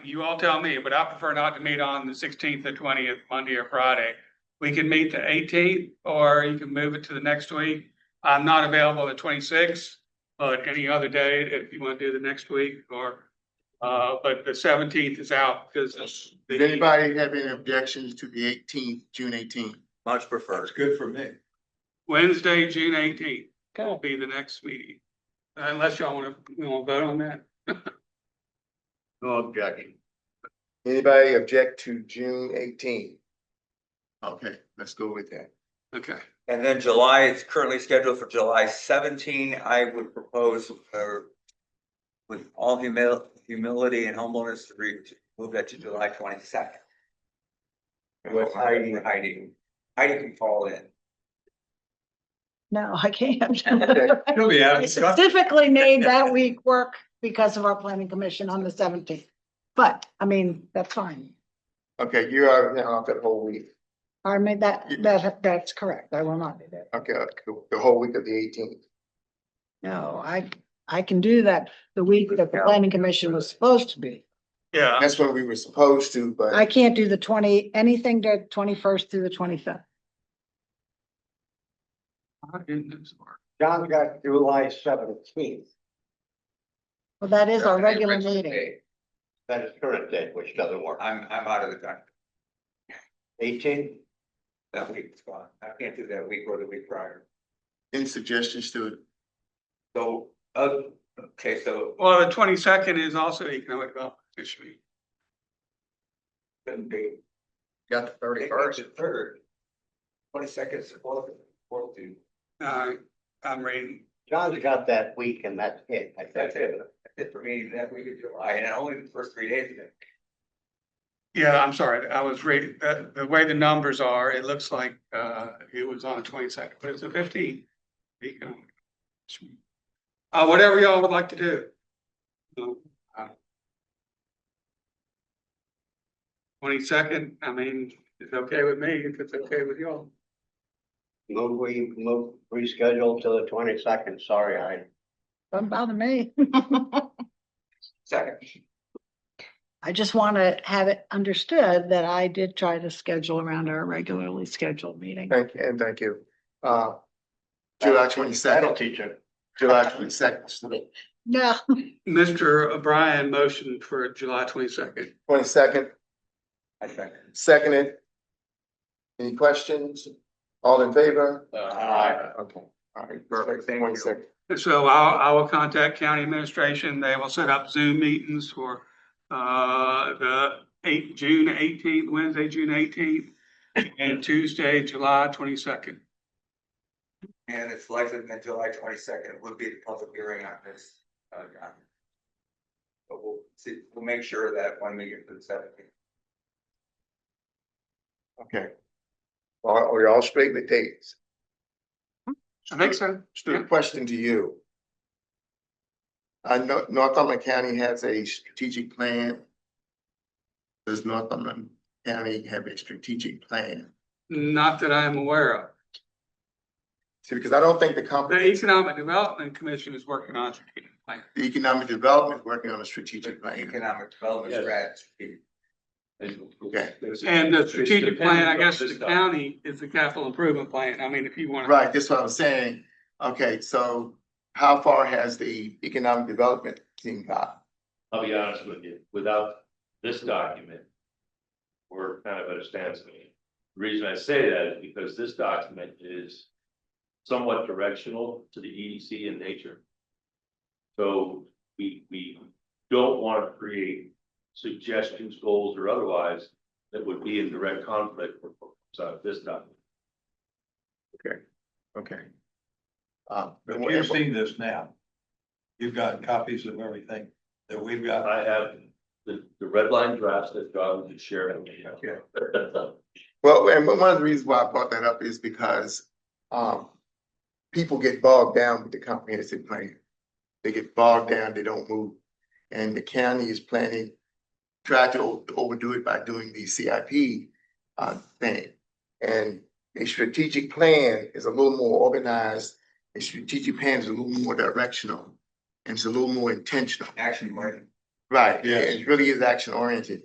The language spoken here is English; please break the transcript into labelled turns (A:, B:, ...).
A: you all tell me, but I prefer not to meet on the sixteenth, the twentieth, Monday or Friday. We can meet the eighteenth, or you can move it to the next week. I'm not available the twenty-sixth, but any other day, if you want to do the next week, or, uh, but the seventeenth is out, because it's. the-
B: Does anybody have any objections to the eighteenth, June eighteenth?
C: Much preferred.
D: good for me.
A: Wednesday, June eighteenth will
E: Okay,
A: be the next meeting. Unless y'all want to, we want to vote on that.
C: No objection.
B: Anybody object to June eighteenth? Okay, let's go with that.
A: Okay.
C: And then July, it's currently scheduled for July seventeen. I would propose, uh, with all humil- humility and humbleness, to re- to move that to July twenty-second.
B: With
C: Heidi, Heidi, Heidi can fall in.
E: no, I can't.
D: You'll be out
E: I specifically made that week work because of our planning commission on the seventeenth. But, I mean, that's fine.
B: Okay, you are now off that whole week.
E: I made that, that, that's correct. I will not do that.
B: Okay, the- the whole week of the eighteenth.
E: No, I, I can do that the week that the planning commission was supposed to be.
A: Yeah,
B: That's what we were supposed to,
E: I
B: but
E: can't do the twenty, anything to twenty-first through the twenty-fifth.
F: John got July seventeenth,
E: Well, that is our regular meeting.
F: that is current date, which doesn't work.
C: I'm, I'm out of the country.
F: Eighteen,
C: That week is gone. I can't do that week or the week prior.
B: any suggestions to it?
C: So, uh, okay, so
A: well, the twenty-second is also economic development issue.
C: couldn't be.
B: Got the
C: Third. Twenty-second is fourth, fourth due.
A: Uh, I'm reading.
F: John's got that week and that's it. I think.
C: That's it. That's it for me, that week of July, and only the first three days of it.
A: Yeah, I'm sorry. I was reading, the, the way the numbers are, it looks like, uh, it was on the twenty-second, but it's the fifteenth. Uh, whatever y'all would like to Uh, do. Twenty-second, I mean, it's okay with me if it's okay with y'all.
F: Move, we move, reschedule to the twenty-second, sorry, I.
E: Don't bother me.
C: Second,
E: I just want to have it understood that I did try to schedule around our regularly scheduled meeting.
B: Thank, you, and thank you. Uh, July
F: That'll
B: twenty-second,
F: teach it.
B: July twenty-second,
E: No,
A: Mr. O'Brien motioned for July twenty-second.
B: twenty-second,
C: I second.
B: seconded. Any questions? All in favor?
F: Uh,
C: Aye.
B: Okay, all right,
C: Perfect,
B: perfect,
C: thank you.
B: twenty-second.
A: So I'll, I will contact county administration. They will set up Zoom meetings for, uh, the eight, June eighteenth, Wednesday, June eighteenth, and Tuesday, July twenty-second.
C: And it's likely that July twenty-second would be the public hearing on this. uh, on- But we'll see, we'll make sure that when we get to the seventeenth.
B: Okay. Are, are y'all straight with dates?
A: I think so.
B: Stupid question to you. Uh, I know Northumberland County has a strategic plan. Does Northumberland County have a strategic plan?
A: Not that I am aware of.
B: See, because I don't think the comp,
A: The
B: the
A: Economic Development Commission is working on a strategic plan.
B: economic development is working on a strategic plan.
C: Economic development
D: Yes.
C: strategy.
B: Okay.
A: And the strategic plan, I guess, the
D: is
A: county is the capital improvement plan. I mean, if you want. to.
B: Right, that's what I was saying. Okay, so how far has the economic development team got?
D: I'll be honest with you, without this document, we're kind of at a standstill. The reason I say that is because this document is somewhat directional to the EDC in nature. So we, we don't want to create suggestions, goals, or otherwise that would be in direct conflict with what's out of this document.
B: Okay. Um,
G: But you've seen this now. You've got copies of everything that we've got.
D: I have the, the red line drafts that John had shared. with me.
B: Well, and one of the reasons why I brought that up is because, um, people get bogged down with the comprehensive plan. They get bogged down, they don't move. And the county is planning, try to o- overdo it by doing the CIP, uh, thing. And a strategic plan is a little more organized, a strategic plan is a little more directional, and it's a little more intentional.
C: Action plan.
B: Right, yeah,
G: Yes.
B: it really is action oriented.